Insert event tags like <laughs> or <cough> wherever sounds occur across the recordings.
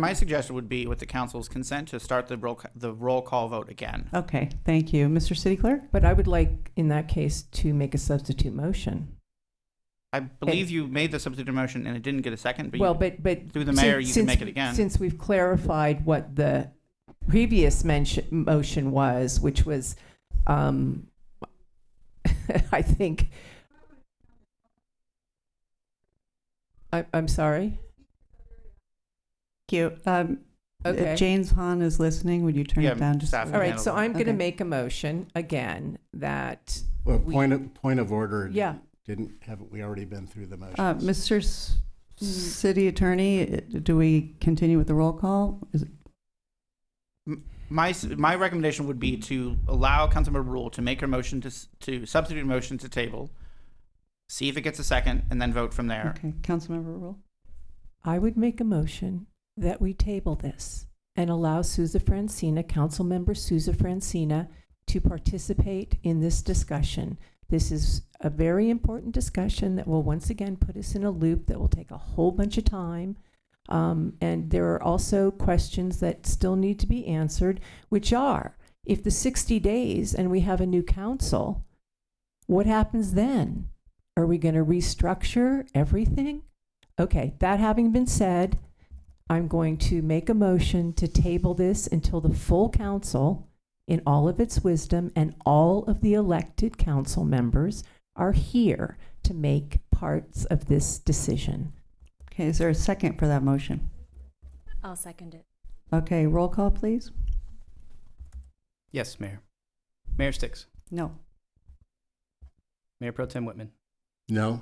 My suggestion would be, with the council's consent, to start the roll, the roll call vote again. Okay, thank you. Mr. City Clerk? But I would like, in that case, to make a substitute motion. I believe you made the substitute motion and it didn't get a second, but Well, you, but, but. through the mayor, since- you can since- make it again. Since we've clarified what the previous mention, motion was, which was, um, <laughs> I think. I, I'm sorry? Thank you. Um, If Okay. James Han is listening, would you turn Yeah, it down just? a staff. little All bit? right, so I'm going to Okay. make a motion again that, Well, We- point of, point of order. yeah, Didn't, haven't we already been through the motion? Uh, Mr. S- City Attorney, uh, do we continue with the roll call? Is it- My, s- my recommendation would be to allow Councilmember Rule to make her motion to, s- to substitute a motion to table, see if it gets a second, and then vote from there. Okay, Councilmember Rule? I would make a motion that we table this and allow Souza Francina, Councilmember Souza Francina, to participate in this discussion. This is a very important discussion that will once again put us in a loop that will take a whole bunch of time. Um, and there are also questions that still need to be answered, which are, if the 60 days and we have a new council, what happens then? Are we going to restructure everything? Okay, that having been said, I'm going to make a motion to table this until the full council, in all of its wisdom, and all of the elected council members are here to make parts of this decision. Okay, is there a second for that motion? I'll second it. Okay, roll call, please? Yes, Mayor. Mayor Sticks. No. Mayor Pro Tem Whitman. No?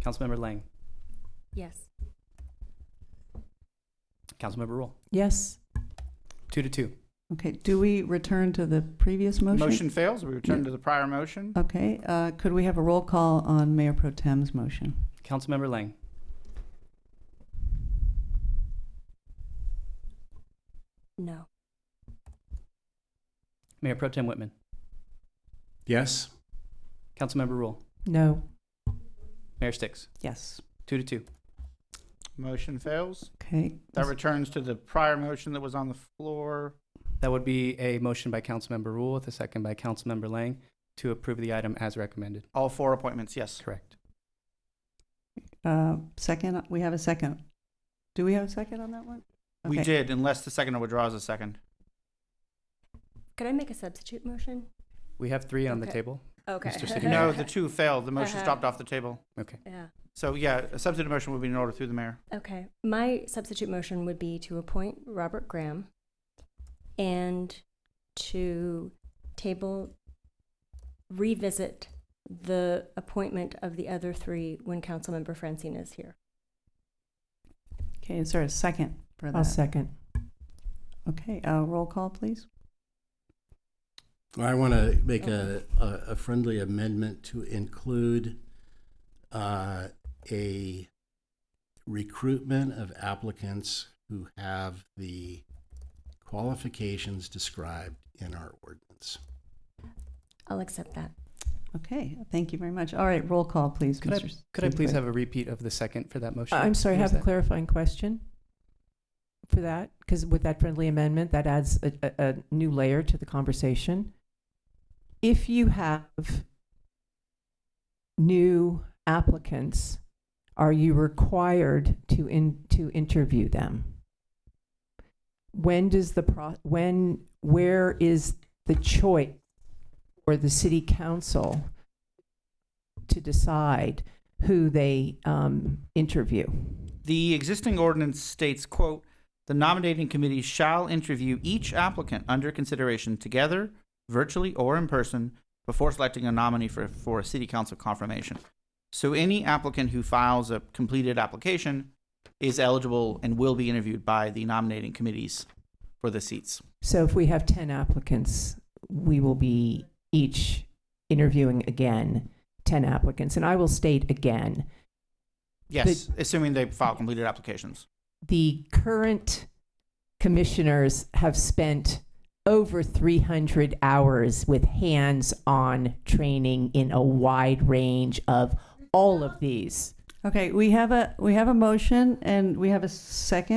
Councilmember Lang. Yes. Councilmember Rule. Yes, Two to two. Okay, do we return to the previous motion? Motion fails, we return to the prior motion. Okay, uh, could we have a roll call on Mayor Pro Tem's motion? Councilmember Lang. No. Mayor Pro Tem Whitman. Yes? Councilmember Rule. no, Mayor Sticks. Yes. Two to two. Motion fails. Okay. That returns to the prior motion that was on the floor. That would be a motion by Councilmember Rule with a second by Councilmember Lang to approve the item as recommended. All four appointments, yes. Correct. Uh, Second, we have a second. Do we have a second on that one? We Okay. did, unless the second withdraws a second. Could I make a substitute motion? We have three on the Okay. table. Okay. Mr. City No, Mayor. the two failed. The motion's Uh-huh. dropped off the table. Okay. Yeah. So yeah, a substitute motion would be in order through the mayor. Okay. My substitute motion would be to appoint Robert Graham and to table, revisit the appointment of the other three when Councilmember Francina is here. Okay, is there a second for I'll that? second. Okay, uh, roll call, please. Well, I want to make a, a a friendly amendment to include uh, a recruitment of applicants who have the qualifications described in our ordinance. I'll accept that. Okay, thank you very much. All right, roll call, please, Could I- Mr. Could I City please Clerk. have a repeat of the second for that motion? I'm sorry, I What was have a that? clarifying question for that, because with that friendly amendment, that adds a, a, a new layer to the conversation. If you have new applicants, are you required to in, to interview them? When does the pro, when, where is the choice for the city council to decide who they, um, interview? The existing ordinance states, quote, "The nominating committee shall interview each applicant under consideration together, virtually or in person, before selecting a nominee for, for a city council confirmation." So any applicant who files a completed application is eligible and will be interviewed by the nominating committees for the seats. So if we have 10 applicants, we will be each interviewing again 10 applicants. And I will state again, Yes, assuming they file completed applications. the current commissioners have spent over 300 hours with hands-on training in a wide range of all of these. Okay, we have a, we have a motion and we have a second.